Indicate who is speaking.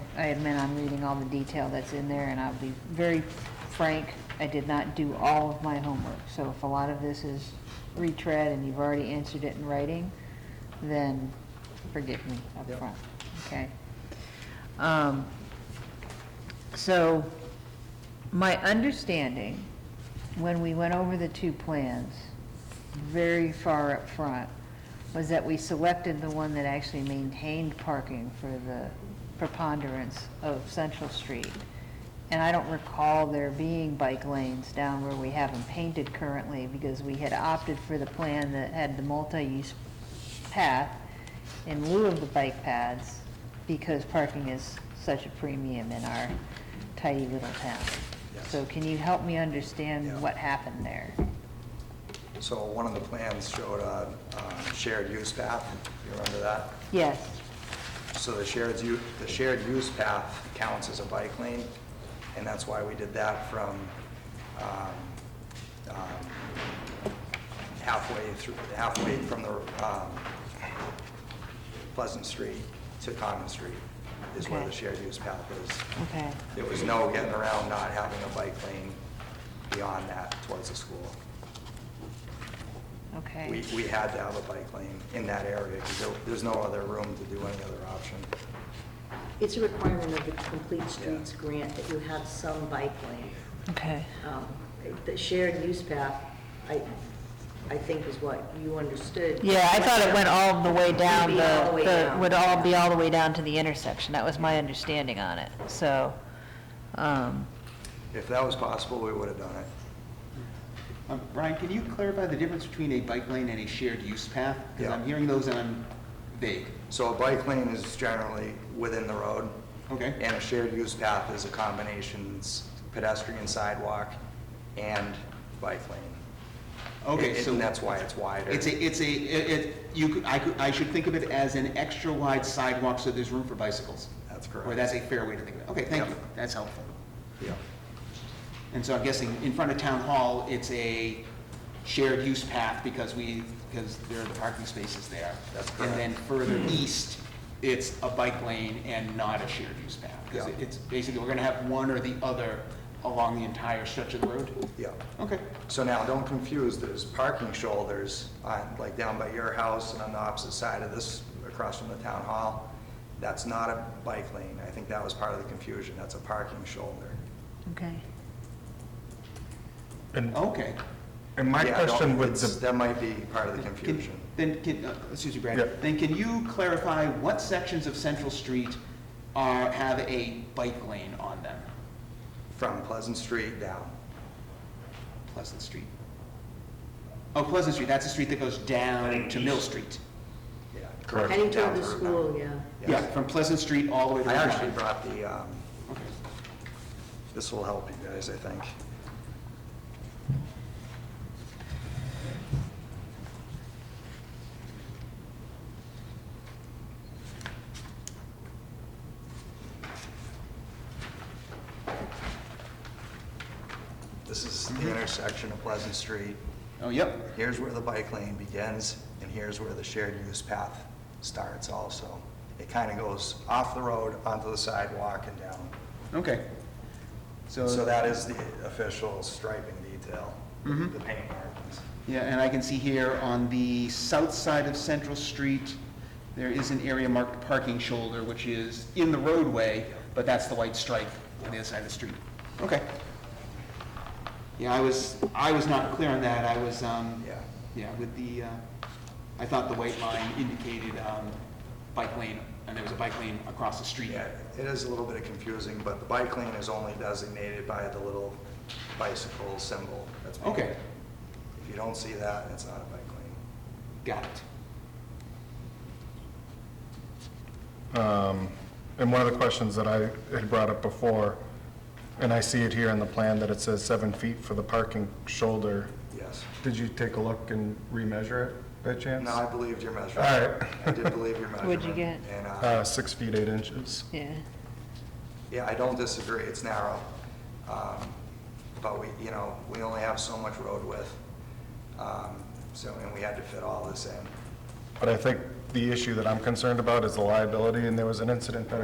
Speaker 1: I admit I'm reading all the detail that's in there, and I'll be very frank, I did not do all of my homework. So if a lot of this is retread and you've already answered it in writing, then forgive me up
Speaker 2: Yep.
Speaker 1: front, okay? Um, So, my understanding, when we went over the two plans, very far up front, was that we selected the one that actually maintained parking for the preponderance of Central Street. And I don't recall there being bike lanes down where we have them painted currently, because we had opted for the plan that had the multi-use path in lieu of the bike paths, because parking is such a premium in our tidy little town.
Speaker 2: Yes.
Speaker 1: So can you help me
Speaker 2: Yeah.
Speaker 1: understand what happened there?
Speaker 2: So one of the plans showed a um, shared use path, you remember that?
Speaker 1: Yes,
Speaker 2: So the shared, u- the shared use path counts as a bike lane, and that's why we did that from um, um, halfway through, halfway from the um, Pleasant Street to Common Street is where the
Speaker 1: Okay.
Speaker 2: shared use path is.
Speaker 1: okay,
Speaker 2: There was no getting around not having a bike lane beyond that towards the school.
Speaker 1: okay.
Speaker 2: We, we had to have a bike lane in that area, because there's no other room to do any other option.
Speaker 3: It's a requirement of the Complete Streets grant that you have some bike lane.
Speaker 1: Okay.
Speaker 3: Um, The shared use path, I, I think is what you understood.
Speaker 1: Yeah, I thought it went all the way down,
Speaker 3: It'd be all the
Speaker 1: the,
Speaker 3: way
Speaker 1: the-
Speaker 3: down.
Speaker 1: would all be all the way down to the intersection. That was my understanding on it, so, um,
Speaker 2: If that was possible, we would have done it.
Speaker 4: Um, Brian, can you clarify the difference between a bike lane and a shared use path? Because I'm
Speaker 2: Yeah.
Speaker 4: hearing those and I'm vague.
Speaker 2: So a bike lane is generally within the road,
Speaker 4: Okay.
Speaker 2: and a shared use path is a combination, it's pedestrian sidewalk and bike lane.
Speaker 4: Okay,
Speaker 2: And-
Speaker 4: so
Speaker 2: And that's why it's wider.
Speaker 4: it's a, it's a, it, it- you could, I could, I should think of it as an extra wide sidewalk so there's room for bicycles.
Speaker 2: That's
Speaker 4: Or
Speaker 2: correct.
Speaker 4: that's a fair way to think of it. Okay, thank you.
Speaker 2: Yep.
Speaker 4: That's helpful.
Speaker 2: Yeah.
Speaker 4: And so I'm guessing in front of town hall, it's a shared use path because we, because there are the parking spaces there.
Speaker 2: That's
Speaker 4: And
Speaker 2: correct.
Speaker 4: then further east, it's a bike lane and not a shared use path. Because
Speaker 2: Yeah.
Speaker 4: it's basically, we're gonna have one or the other along the entire stretch of the road.
Speaker 2: Yeah.
Speaker 4: Okay,
Speaker 2: So now, don't confuse, there's parking shoulders, on- like down by your house and on the opposite side of this, across from the town hall. That's not a bike lane. I think that was part of the confusion. That's a parking shoulder.
Speaker 1: okay.
Speaker 5: And,
Speaker 4: okay.
Speaker 5: and my
Speaker 2: Oh. Yeah, no,
Speaker 5: question with
Speaker 2: it's-
Speaker 5: the,
Speaker 2: That might be part of the
Speaker 4: Can-
Speaker 2: confusion.
Speaker 4: Then, can, uh, excuse me,
Speaker 5: Yeah.
Speaker 4: Brad, then can you clarify what sections of Central Street are, have a bike lane on them?
Speaker 2: From Pleasant Street down.
Speaker 4: Pleasant Street. Oh, Pleasant Street, that's the street that goes down to Mill Street.
Speaker 2: Yeah.
Speaker 5: Correct.
Speaker 3: Heading toward
Speaker 2: Down
Speaker 3: the
Speaker 2: Route
Speaker 3: school,
Speaker 2: nine.
Speaker 3: yeah.
Speaker 4: Yeah,
Speaker 2: Yes.
Speaker 4: from Pleasant Street all the way to.
Speaker 2: I
Speaker 4: Route
Speaker 2: actually
Speaker 4: nine.
Speaker 2: brought the, um,
Speaker 4: Okay.
Speaker 2: this will help you guys, I think. This is the intersection of Pleasant Street.
Speaker 4: Oh, yep,
Speaker 2: Here's where the bike lane begins, and here's where the shared use path starts also. It kind of goes off the road, onto the sidewalk, and down.
Speaker 4: okay. So,
Speaker 2: So that is the official striping detail,
Speaker 4: Mhm.
Speaker 2: the paint markings.
Speaker 4: yeah, and I can see here on the south side of Central Street, there is an area marked parking shoulder, which is in the roadway, but that's the white stripe on the other side of the street. Okay. Yeah, I was, I was not clear on that, I was, um,
Speaker 2: Yeah.
Speaker 4: yeah, with the, uh, I thought the white line indicated, um, bike lane, and there was a bike lane across the street.
Speaker 2: Yeah, it is a little bit confusing, but the bike lane is only designated by the little bicycle symbol. that's painted.
Speaker 4: Okay.
Speaker 2: If you don't see that, it's not a bike lane.
Speaker 4: Got it.
Speaker 5: um, and one of the questions that I had brought up before, and I see it here in the plan that it says seven feet for the parking shoulder.
Speaker 2: Yes.
Speaker 5: Did you take a look and remeasure it by chance?
Speaker 2: No, I believed your measurement.
Speaker 5: All right.
Speaker 2: I did believe your measurement.
Speaker 1: What'd you get?
Speaker 2: And, uh,
Speaker 5: Uh, six feet, eight inches.
Speaker 1: Yeah,
Speaker 2: Yeah, I don't disagree, it's narrow. Um, But we, you know, we only have so much road width, Um, so, and we had to fit all this in.
Speaker 5: But I think the issue that I'm concerned about is the liability, and there was an incident that